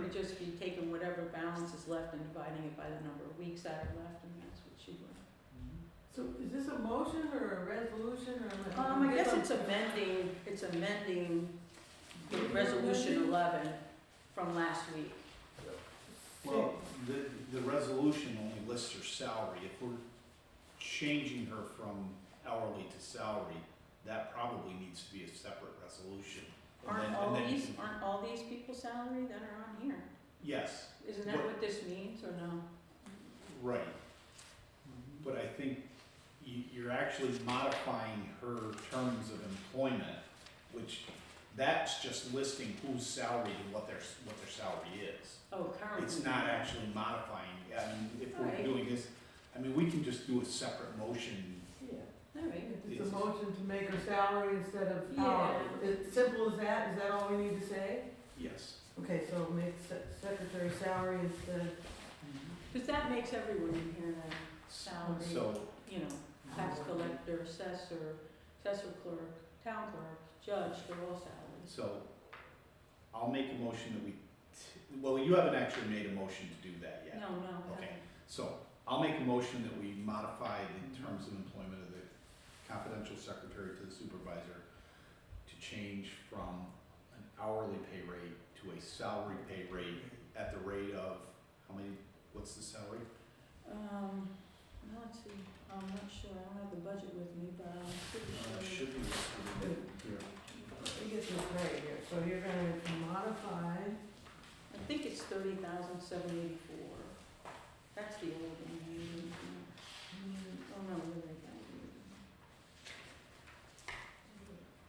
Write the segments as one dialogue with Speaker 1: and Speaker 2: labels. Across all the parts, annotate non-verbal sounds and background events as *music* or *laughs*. Speaker 1: would just be taking whatever balance is left and dividing it by the number of weeks that are left, and that's what she would.
Speaker 2: So is this a motion or a resolution or? a-
Speaker 1: Um, I guess it's amending, it's amending the resolution eleven from last week.
Speaker 3: Well, the, the resolution only lists her salary. If we're changing her from hourly to salary, that probably needs to be a separate resolution. And then-
Speaker 1: Aren't
Speaker 3: and
Speaker 1: all
Speaker 3: then-
Speaker 1: these, aren't all these people salary that are on here?
Speaker 3: Yes,
Speaker 1: Isn't that what this means, or no?
Speaker 3: right. But I think you, you're actually modifying her terms of employment, which that's just listing who's salaried and what their, s- what their salary is.
Speaker 1: Oh, currently.
Speaker 3: It's not actually modifying, I mean, if we're
Speaker 1: Right.
Speaker 3: doing this, I mean, we can just do a separate motion
Speaker 2: Yeah,
Speaker 1: All right.
Speaker 2: It's a motion to make her salary instead of hourly.
Speaker 1: Yeah.
Speaker 2: It's simple as that, is that all we need to say?
Speaker 3: Yes.
Speaker 2: Okay, so make se- secretary salary instead of
Speaker 1: Because that makes everyone in here, a, Salary.
Speaker 3: So,
Speaker 1: you know, tax collector, assessor, assessor clerk, town clerk, judge, they're all salaries.
Speaker 3: so I'll make a motion that we, t- well, you haven't actually made a motion to do that yet.
Speaker 1: No, no. that-
Speaker 3: Okay. So I'll make a motion that we modify the terms of employment of the confidential secretary to the supervisor to change from an hourly pay rate to a salary pay rate at the rate of, how many, what's the salary?
Speaker 1: Um, now let's see, I'm not sure, I don't have the budget with me, but I'm
Speaker 3: Uh,
Speaker 1: pretty sure.
Speaker 3: Should be listed in here.
Speaker 2: Let me get this right here, so you're gonna modify,
Speaker 1: I think it's thirty thousand seven eighty-four. That's the old one. I mean, mm, Oh, no, wait, wait, that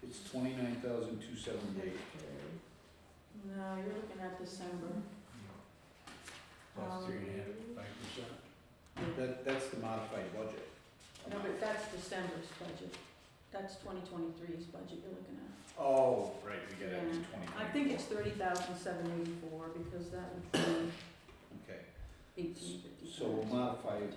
Speaker 3: It's twenty-nine thousand two seventy-eight.
Speaker 2: okay,
Speaker 1: one. No, you're looking at December.
Speaker 2: Plus three and a half,
Speaker 1: Um,
Speaker 3: five percent.
Speaker 1: Yeah.
Speaker 3: That, that's the modified budget.
Speaker 1: No, but that's December's budget. That's twenty twenty-three's budget you're looking at.
Speaker 3: Oh, right, we gotta do
Speaker 1: Yeah.
Speaker 3: twenty.
Speaker 1: I think it's thirty thousand seven eighty-four because that would be
Speaker 3: Okay,
Speaker 1: eighteen fifty-five.
Speaker 3: so we'll modify it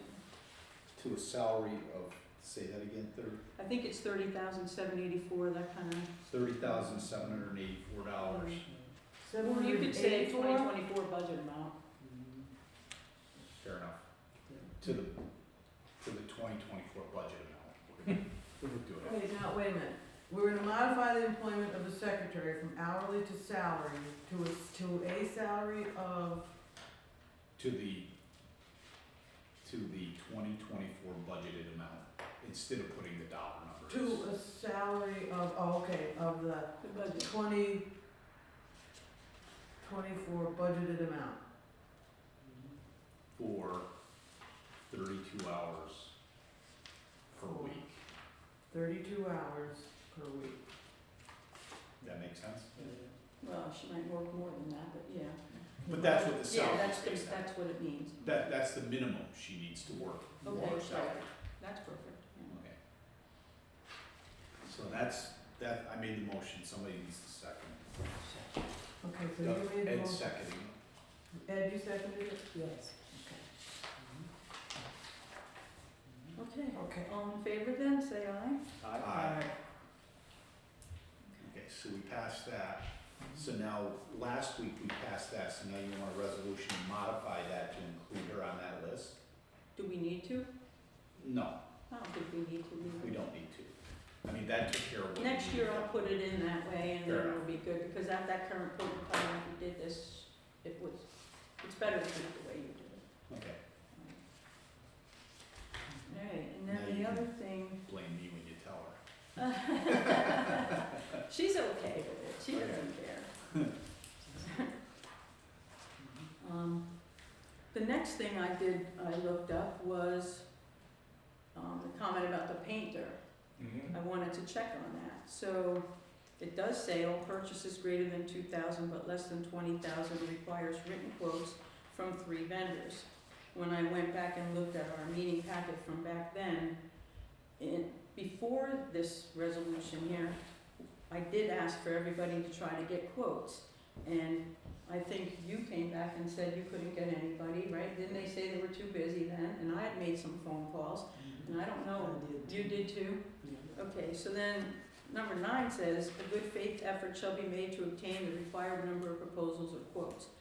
Speaker 3: to a salary of, say that again, thirty,
Speaker 1: I think it's thirty thousand seven eighty-four, that kind of.
Speaker 3: thirty thousand seven hundred and eighty-four dollars.
Speaker 2: seven
Speaker 1: Well, you
Speaker 2: hundred
Speaker 1: could say
Speaker 2: eighty-four?
Speaker 1: twenty twenty-four budget amount.
Speaker 3: Fair enough. To the, to the twenty twenty-four budget amount. We're gonna- We're gonna do it.
Speaker 2: Wait, now, wait a minute. We're gonna modify the employment of the secretary from hourly to salary to a, to a salary of,
Speaker 3: To the, to the twenty twenty-four budgeted amount, instead of putting the dollar numbers.
Speaker 2: to a salary of, oh, okay, of the
Speaker 1: The budget.
Speaker 2: twenty, twenty-four budgeted amount.
Speaker 3: for thirty-two hours per week.
Speaker 2: Thirty-two hours per week.
Speaker 3: That makes sense?
Speaker 1: Well, she might work more than that, but yeah.
Speaker 3: But that's what the
Speaker 1: Yeah,
Speaker 3: salary
Speaker 1: that's,
Speaker 3: is based on.
Speaker 1: that's what it means.
Speaker 3: That, that's the minimum she needs to work, for
Speaker 1: Okay,
Speaker 3: her salary.
Speaker 1: That's perfect. yeah.
Speaker 3: Okay. So that's, that, I made the motion, somebody needs to second.
Speaker 2: Okay, so you made the
Speaker 3: Ed
Speaker 2: motion.
Speaker 3: seconding.
Speaker 2: Ed, you seconded it?
Speaker 1: Yes. Okay,
Speaker 2: Okay.
Speaker 1: all in favor then, say aye.
Speaker 3: Aye. Okay, so we passed that. So now, last week we passed that, so now you want a resolution to modify that to include her on that list?
Speaker 1: Do we need to?
Speaker 3: No,
Speaker 1: I don't think we need to.
Speaker 3: We don't need to. I mean, that took care of what. we
Speaker 1: Next year I'll
Speaker 3: needed.
Speaker 1: put it in that way and then
Speaker 3: Fair
Speaker 1: it'll be good, because at that current point in time, if we did this, it was, it's better to do it the way you did it.
Speaker 3: Okay,
Speaker 1: Alright, and
Speaker 3: Now
Speaker 1: then
Speaker 3: you
Speaker 1: the
Speaker 3: can-
Speaker 1: other thing
Speaker 3: blame me when you tell her.
Speaker 1: *laughs* She's okay with it, she doesn't care. Um, the next thing I did, I looked up was, um, the comment about the painter. I wanted to check on that, so it does say all purchases greater than two thousand but less than twenty thousand requires written quotes from three vendors. When I went back and looked at our meeting packet from back then, in, before this resolution here, I did ask for everybody to try to get quotes. And I think you came back and said you couldn't get anybody, right? Didn't they say they were too busy then? And I had made some phone calls, and I don't know, you did too? Okay, so then, number nine says, a good faith effort shall be made to obtain the required number of proposals or quotes.